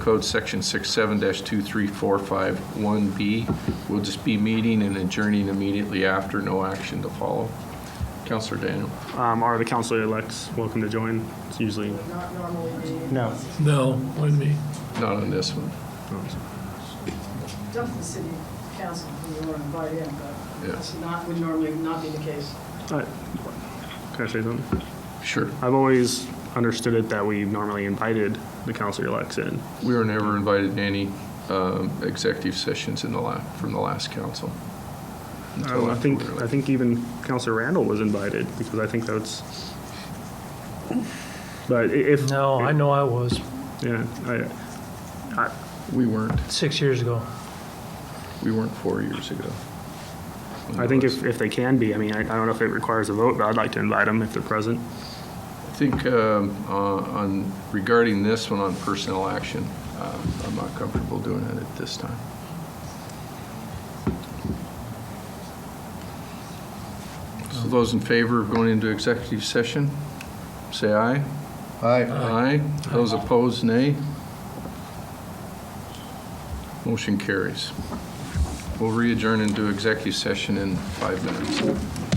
Code Section 67-23451B. We'll just be meeting and adjourning immediately after, no action to follow. Counselor Daniel. Um, Are the counselor-elects welcome to join? It's usually, No. No, wouldn't be. Not on this one. um, dump the city council who you want to invite in, but Yeah. that's not, would normally not be the case. uh, can I say something? Sure. I've always understood it that we normally invited the counselor-elects in. We were never invited to any um, executive sessions in the la, from the last council. Um, I think, I think even Counselor Randall was invited, because I think that's, but i- if. No, I know I was Yeah, I, We weren't, six years ago. we weren't four years ago. I think if, if they can be, I mean, I I don't know if it requires a vote, but I'd like to invite them if they're present. I think um, uh, on, regarding this one on personnel action, uh, I'm not comfortable doing it at this time. So those in favor of going into executive session, say aye. Aye. Aye. Those opposed, nay. Motion carries. We'll re-adjourn into executive session in five minutes.